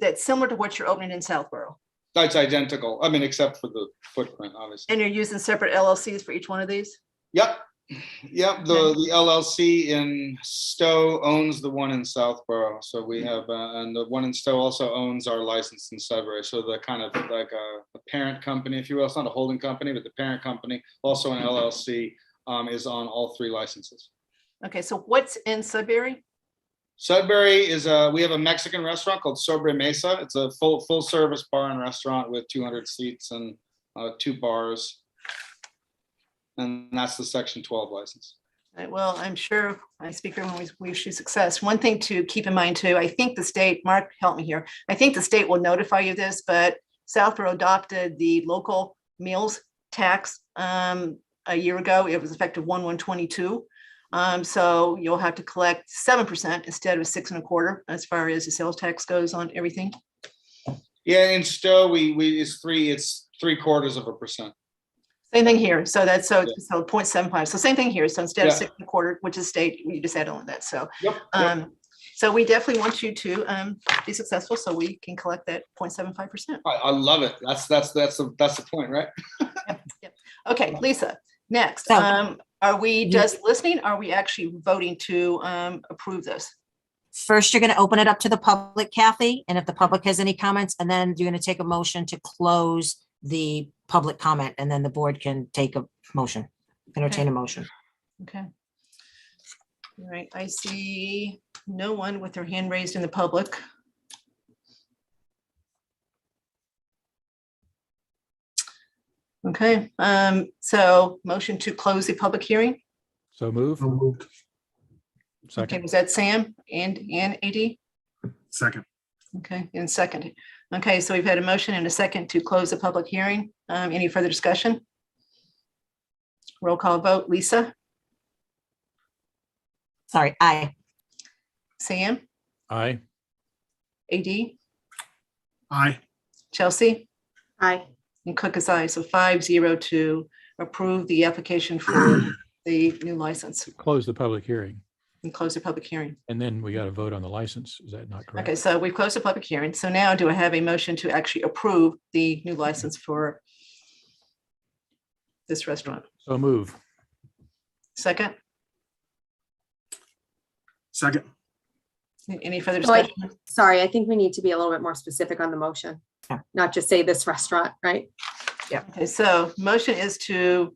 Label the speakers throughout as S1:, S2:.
S1: that's similar to what you're opening in Southborough?
S2: That's identical. I mean, except for the footprint, obviously.
S1: And you're using separate LLCs for each one of these?
S2: Yep. Yep, the, the LLC in Stowe owns the one in Southborough. So we have, uh, and the one in Stowe also owns our license in Sudbury. So the kind of like a, a parent company, if you will, it's not a holding company, but the parent company, also an LLC, um, is on all three licenses.
S1: Okay, so what's in Sudbury?
S2: Sudbury is a, we have a Mexican restaurant called Sobre Mesa. It's a full, full service bar and restaurant with two hundred seats and uh, two bars. And that's the section twelve license.
S1: Right, Uh, Well, I'm sure I speak for everyone. we- we wish you success. One thing to keep in mind too, I think the state, Mark, help me here. I think the state will notify you this, but Southborough adopted the local meals tax um, a year ago. It was effective one one twenty-two. Um, so you'll have to collect seven percent instead of six and a quarter as far as the sales tax goes on everything.
S2: Yeah, in Stowe, we, we, it's three, it's three quarters of a percent.
S1: Same thing here. So that's so,
S2: Yeah.
S1: so point seven five. So same thing here. So instead of
S2: Yeah.
S1: six and a quarter, which is state, you just add on that. So.
S2: Yep. yep.
S1: Um, so we definitely want you to, um, be successful so we can collect that 0.75 percent.
S2: I, I love it. That's, that's, that's, the that's the point, right?
S1: Okay, Lisa, next,
S3: So-
S1: um, are we
S3: Ye-
S1: just listening? Are we actually voting to, um, approve this?
S3: First, you're going to open it up to the public, Kathy, and if the public has any comments, and then you're going to take a motion to close the public comment, and then the board can take a motion, entertain a motion.
S1: Okay. All right, I see no one with their hand raised in the public. Okay, um, so motion to close the public hearing.
S4: So move.
S5: So moved.
S1: Okay,
S4: Second.
S1: was that Sam and, and AD?
S5: Second.
S1: Okay, and second. Okay, so we've had a motion and a second to close the public hearing. Um, any further discussion? Roll call vote, Lisa,
S3: Sorry, aye.
S1: Sam,
S4: Aye.
S1: AD,
S5: Aye.
S1: Chelsea,
S6: Aye.
S1: and Cook is aye. So five zero to approve the application for the new license
S4: Close the public hearing.
S1: and close the public hearing.
S4: And then we got to vote on the license. Is that not
S1: Okay,
S4: correct?
S1: so we've closed the public hearing. So now do I have a motion to actually approve the new license for this restaurant?
S4: So move.
S1: Second,
S5: Second.
S1: any further
S6: So I-
S1: discussion?
S6: Sorry, I think we need to be a little bit more specific on the motion,
S3: Yeah.
S6: not just say this restaurant, right?
S1: Okay, so motion is to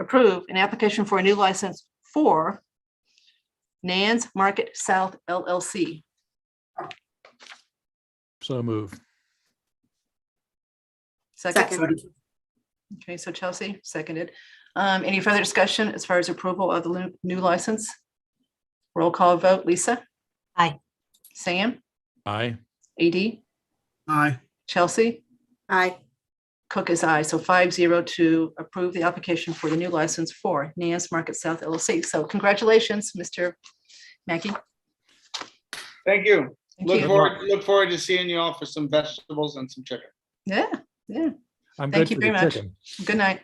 S1: approve an application for a new license for Nan's Market South LLC.
S4: So move.
S1: Second,
S6: Second,
S1: okay, so Chelsea, seconded. Um, any further discussion as far as approval of the lu- new license? Roll call vote, Lisa?
S3: Aye.
S1: Sam,
S4: Aye.
S1: AD,
S5: Aye.
S1: Chelsea,
S6: aye,
S1: Cook is aye, so five zero to approve the application for the new license for Nan's Market South LLC. So congratulations, Mr. Mackey.
S2: Thank you.
S1: Thank
S2: Look
S1: you.
S2: forward, look forward to seeing you all for some vegetables and some chicken.
S1: Yeah,
S4: I'm
S1: Thank
S4: good
S1: you
S4: for the
S1: very much.
S4: chicken.
S1: good night.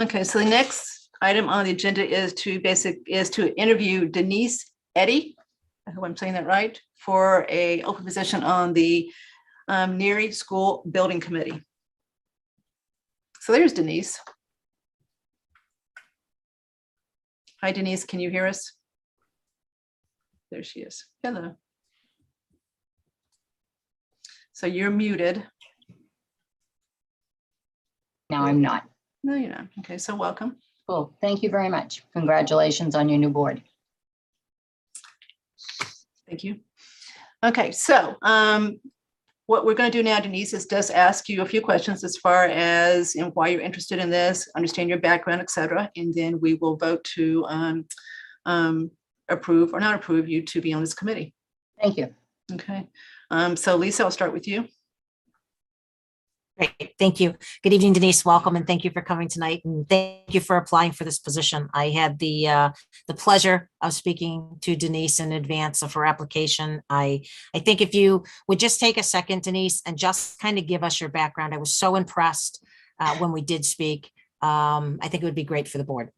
S1: Okay, so the next item on the agenda is to basic, is to interview Denise Eddy. I hope I'm saying that right, for a open position on the um, Neary School Building Committee. So there's Denise. Hi Denise, can you hear us? There she is. Hello. So you're muted.
S7: No, I'm not.
S1: No, you're not. Okay, so welcome.
S7: Cool. Thank you very much. Congratulations on your new board.
S1: Thank you. Okay, so um, what we're going to do now, Denise, is just ask you a few questions as far as and why you're interested in this, understand your background, et cetera, and then we will vote to um, um, approve or not approve you to be on this committee.
S7: Thank you.
S1: Okay, um, so Lisa, I'll start with you.
S3: Great, thank you. Good evening, Denise. Welcome, and thank you for coming tonight, and thank you for applying for this position. I had the, uh, the pleasure of speaking to Denise in advance of her application. I, I think if you would just take a second, Denise, and just kind of give us your background. I was so impressed uh, when we did speak. Um, I think it would be great for the board.